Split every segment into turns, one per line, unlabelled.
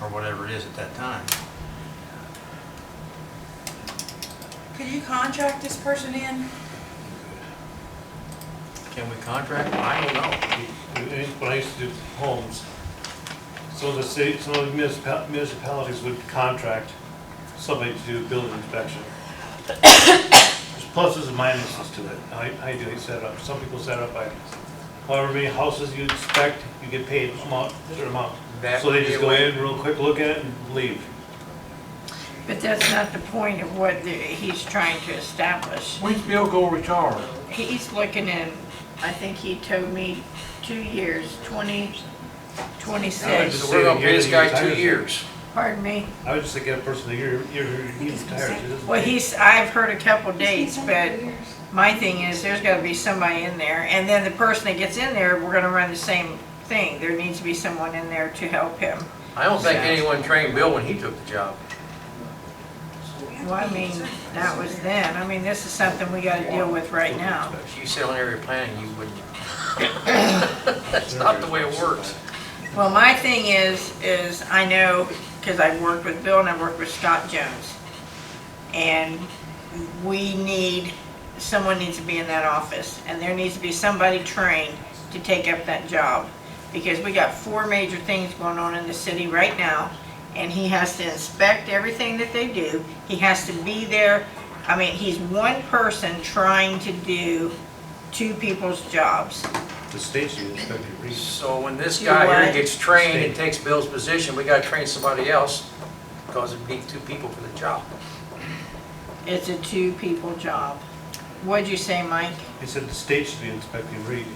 or whatever it is at that time.
Could you contract this person in?
Can we contract? I don't know.
When I used to do homes, so the state, some of the municipa- municipalities would contract somebody to do building inspection. There's pluses and minuses to it, how you- how you do it set up. Some people set up by however many houses you inspect, you get paid amount, certain amount.
That
So
would
they
be
just
a
go
way-
in, real quick, look at it and leave.
But that's not the point of what the- he's trying to establish.
When's Bill go retire?
He's looking in, I think he told me, two years, 2026.
just
So we're gonna
say
pay this
the year
guy
that he
two
retires.
years.
Pardon me?
I would just say get a person a year, year, he retires. It doesn't
Well,
take-
he's, I've heard a couple dates, but my thing is, there's gotta be somebody in there. And then the person that gets in there, we're gonna run the same thing. There needs to be someone in there to help him.
I don't think
Yeah.
anyone trained Bill when he took the job.
Well, I mean, that was then. I mean, this is something we gotta deal with right now.
If you sit on area planning, you wouldn't. That's not the way it works.
Well, my thing is, is I know, because I've worked with Bill and I've worked with Scott Jones. And we need, someone needs to be in that office and there needs to be somebody trained to take up that job. Because we got four major things going on in the city right now and he has to inspect everything that they do. He has to be there. I mean, he's one person trying to do two people's jobs.
The state's you inspect your reason.
So when this
You
guy here
what?
gets trained and takes Bill's position, we gotta train somebody else because it'd be two people for the job.
It's a two-people job. What'd you say, Mike?
He said the state should be inspecting Reed.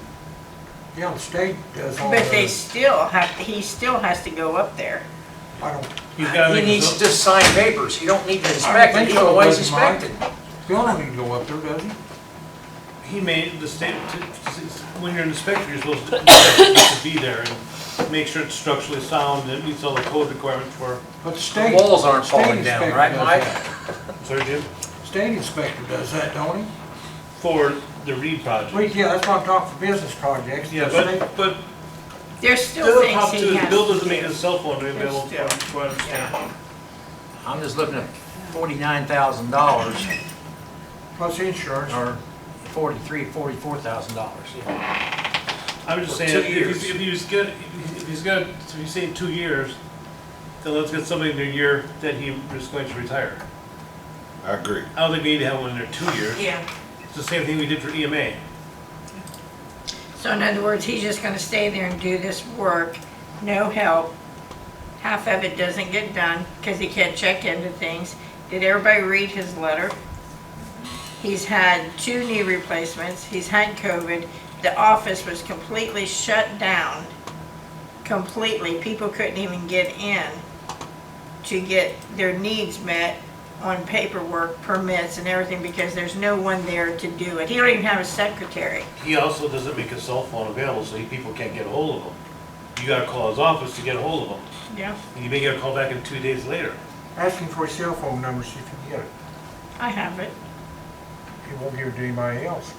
Yeah, the state does
Oh,
all
But
uh,
they
that.
still have, he still has to go up there.
I don't,
He's gotta
He
make his
needs
own-
to just sign papers. He don't need to inspect it.
think
He's
so,
always
but Mike-
inspected.
Bill doesn't even go up there, does he?
He made the state, when you're an inspector, you're supposed to- you're supposed to be there and make sure it's structurally sound, and it meets all the code requirements for,
But the
The
state.
walls aren't
state
falling down,
inspector
right,
does
Mike?
that.
sorry, Jim,
State inspector does that, don't he?
for the Reed
Well,
project.
yeah, that's why I'm talking for business projects. the
Yeah,
state-
but, but
There's
the
still
other
things
problem too
he
is Bill
has.
doesn't make his cell phone available
Yeah.
for, for understanding.
I'm just looking at forty-nine thousand dollars
Plus insurance.
or forty-three, forty-four thousand dollars.
I'm just
For
saying,
two
if he's,
years.
if he's got, if he's got, if he's saying two years, then let's get somebody in the year that he is going to retire.
I agree.
I don't think we need to have one in there two years,
Yeah.
it's the same thing we did for E EMA.
So in other words, he's just gonna stay there and do this work, no help. Half of it doesn't get done because he can't check into things. Did everybody read his letter? He's had two knee replacements, he's had COVID, the office was completely shut down. Completely, people couldn't even get in to get their needs met on paperwork, permits and everything because there's no one there to do it. He don't even have a secretary.
He also doesn't make his cell phone available, so he, people can't get a hold of him. You gotta call his office to get a hold of him,
Yeah.
and you may get a call back in two days later.
Ask him for his cell phone number, see if he can get it.
I have it.
He won't give it to anybody else.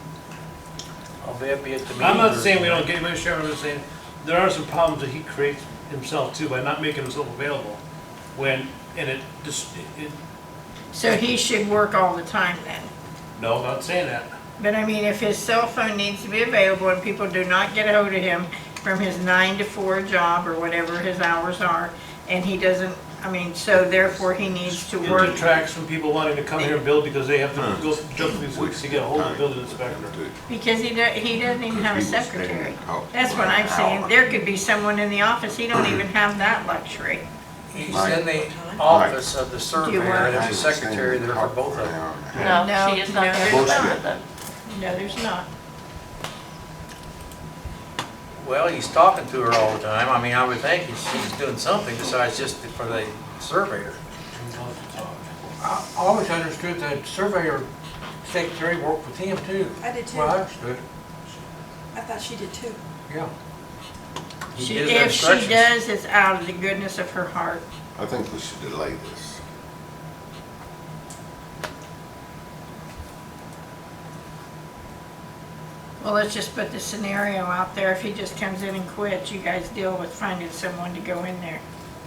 I'll be at the meeting.
I'm not saying we don't get anybody, Sharon, I'm just saying, there are some problems that he creates himself too by not making himself available. When, and it just, it,
So he should work all the time then.
no, I'm not saying that.
But I mean, if his cell phone needs to be available and people do not get ahold of him from his nine to four job or whatever his hours are, and he doesn't, I mean, so therefore he needs to
It
work.
detracts from people wanting to come here and build because they have to go jump through these hoops to get a hold of the building inspector.
Because he do, he doesn't even have a
He was staying
secretary.
at home
That's
for
what
an
I'm saying.
hour.
There could be someone in the office, he don't even have that luxury.
He's in the office of the surveyor,
want-
there's a secretary there for both of them.
No,
No, she is not
no,
there
there's
to sign
not.
them.
No, there's not.
Well, he's talking to her all the time. I mean, I would think he's- she's doing something besides just for the surveyor.
I I always understood that surveyor secretary worked with him too.
I did too.
Well, I
I
understood,
thought she did too.
yeah.
He
She,
gives her
if she
instructions.
does, it's out of the goodness of her heart.
I think we should delay this.
Well, let's just put the scenario out there. If he just comes in and quits, you guys deal with finding someone to go in there.